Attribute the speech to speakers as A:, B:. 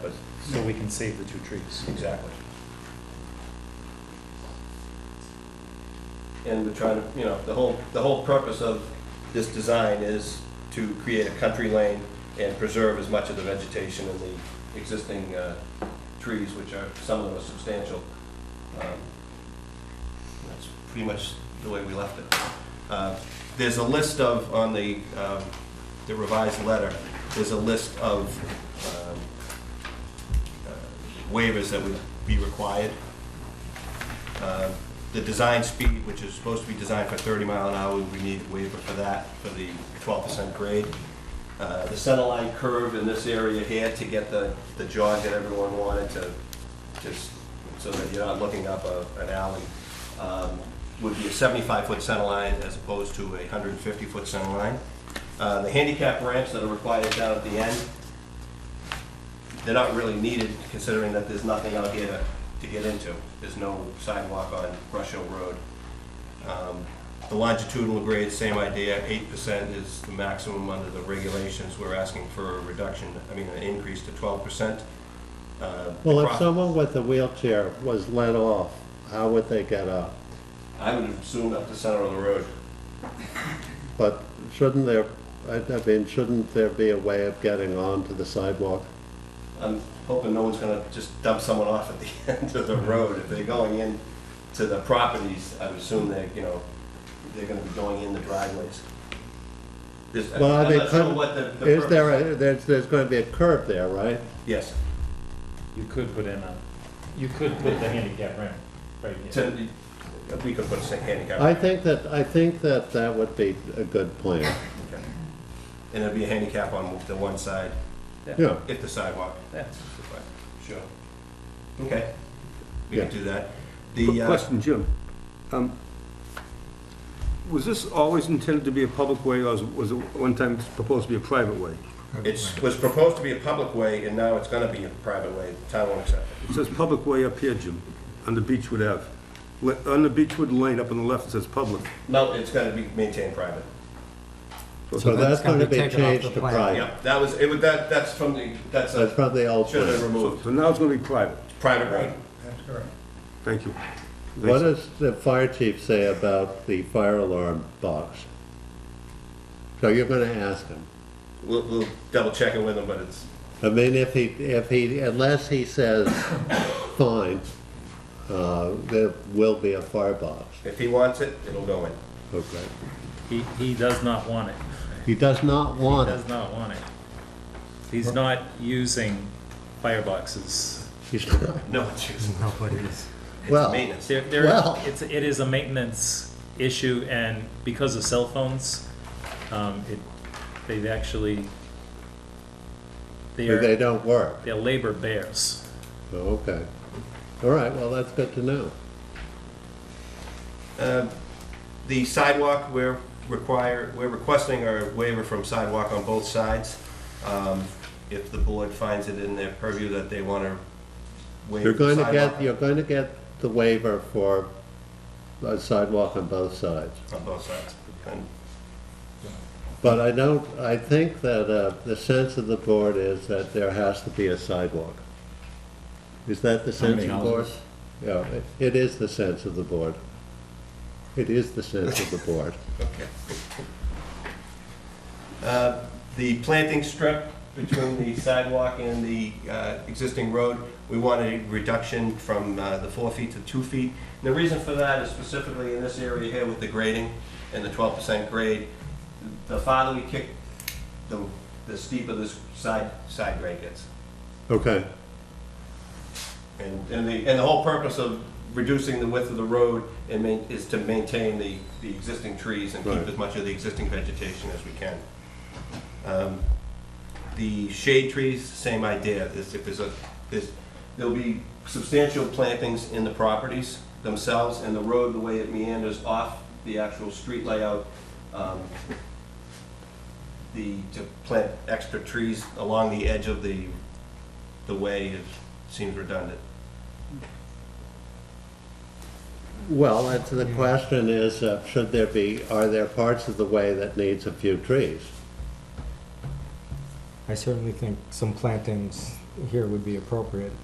A: But,
B: so we can save the two trees.
A: exactly. And we're trying to, you know, the whole, the whole purpose of this design is to create a country lane and preserve as much of the vegetation and the existing uh, trees, which are, some of them are substantial. Um, That's pretty much the way we left it. Uh, There's a list of, on the, um, the revised letter, there's a list of um, uh, waivers that would be required. Uh, The design speed, which is supposed to be designed for 30 mile an hour, we need a waiver for that, for the 12% grade. Uh, The center line curve in this area here to get the, the jog that everyone wanted to, just so that you're not looking up a- an alley, um, would be a 75-foot center line as opposed to a 150-foot center line. Uh, The handicap ramps that are required down at the end, they're not really needed considering that there's nothing out here to, to get into. There's no sidewalk on Brush Hill Road. Um, The longitudinal grade, same idea, eight percent is the maximum under the regulations. We're asking for a reduction, I mean, an increase to twelve percent. uh,
C: Well, if someone with a wheelchair was let off, how would they get up?
A: I would assume up the center of the road.
C: But shouldn't there, I I mean, shouldn't there be a way of getting onto the sidewalk?
A: I'm hoping no one's gonna just dump someone off at the end of the road. If they're going in to the properties, I would assume they're, you know, they're gonna be going in the driveways. This-
C: Well,
A: I'm
C: they
A: not sure
C: could-
A: what the- the
C: Is there,
A: purpose-
C: a there's, there's going to be a curb there, right?
A: Yes,
B: You could put in a, you could put the handicap ramp right here.
A: To- we could put a handicap.
C: I think that, I think that that would be a good plan.
A: Okay. And there'd be a handicap on the one side,
C: Yeah,
A: if the sidewalk.
B: Yeah.
A: Sure. Okay, we
C: Yeah.
A: could do that. The, uh,
D: Question, Jim. Um, Was this always intended to be a public way, or was- was it one time proposed to be a private way?
A: it was proposed to be a public way, and now it's gonna be a private way, The town won't accept it.
D: It says public way up here, Jim, on the Beechwood Ave. Le- On the Beechwood Lane, up on the left, it says public.
A: No, it's gonna be maintained private.
C: so that's going to be
E: taken off the
C: changed to
E: plan.
C: private.
A: Yep, that was, it would, that, that's from the, that's
C: That's
A: a,
C: from the old
A: should have
C: plan.
D: So
A: removed,
D: so now it's going to be private.
A: private way.
D: Thank you.
C: What does the fire chief say about the fire alarm box? So you're going to ask him.
A: We'll, we'll double check it with them, but it's,
C: I mean, if he, if he, unless he says, fine, uh, there will be a firebox,
A: if he wants it, it'll go in.
C: okay?
B: He, he does not want it.
C: He does not want it,
B: Does not want it. He's not using fireboxes.
C: he's not,
A: No, it's just,
E: No, but it is.
C: well,
A: maintenance.
B: There, there,
C: Well-
B: it's, it is a maintenance issue and because of cell phones, um, it, they've actually,
C: they
B: they're,
C: don't work,
B: they're labor bears.
C: okay. All right, well, that's good to know.
A: Uh, The sidewalk, we're require, we're requesting a waiver from sidewalk on both sides. Um, If the board finds it in their purview that they want to waive
C: You're going to
A: sidewalk
C: get, you're going to get the waiver for a sidewalk on both sides.
A: on both sides. And
C: But I don't, I think that uh, the sense of the board is that there has to be a sidewalk. Is that the sense of the board? Yeah, it- it is the sense of the board. It is the sense of the board.
A: Okay. Uh, The planting strip between the sidewalk and the uh, existing road, we want a reduction from uh, the four feet to two feet. And The reason for that is specifically in this area here with the grading and the twelve percent grade. The farther we kick, the the steeper this side, side grade gets.
C: Okay,
A: And, and the, and the whole purpose of reducing the width of the road and main, is to maintain the, the existing trees and keep
C: Right.
A: as much of the existing vegetation as we can. Um, The shade trees, same idea, There's if there's a, there's, there'll be substantial plantings in the properties themselves and the road, the way it meanders off the actual street layout, um, the, to plant extra trees along the edge of the, the way is, seems redundant.
C: well, that's, the question is, uh, should there be, are there parts of the way that needs a few trees?
E: I certainly think some plantings here would be appropriate.